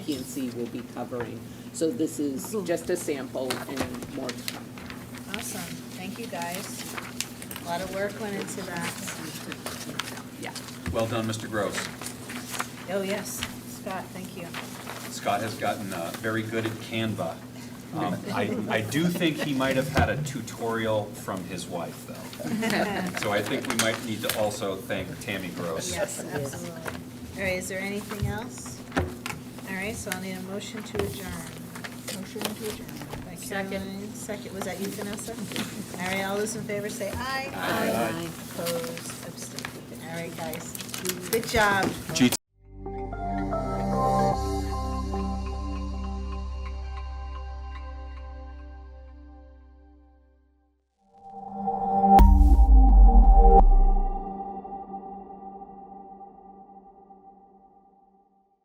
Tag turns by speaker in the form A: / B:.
A: PNC will be covering. So this is just a sample and more to come.
B: Awesome, thank you guys. A lot of work went into that.
A: Yeah.
C: Well done, Mr. Gross.
B: Oh, yes, Scott, thank you.
C: Scott has gotten uh, very good at Canva. Um, I, I do think he might have had a tutorial from his wife, though. So I think we might need to also thank Tammy Gross.
B: Yes, absolutely. All right, is there anything else? All right, so I'll need a motion to adjourn. Motion to adjourn. By Caroline, second, was that you, Vanessa? All right, all those in favor say aye. Aye. Opposed, abstained. All right, guys, good job.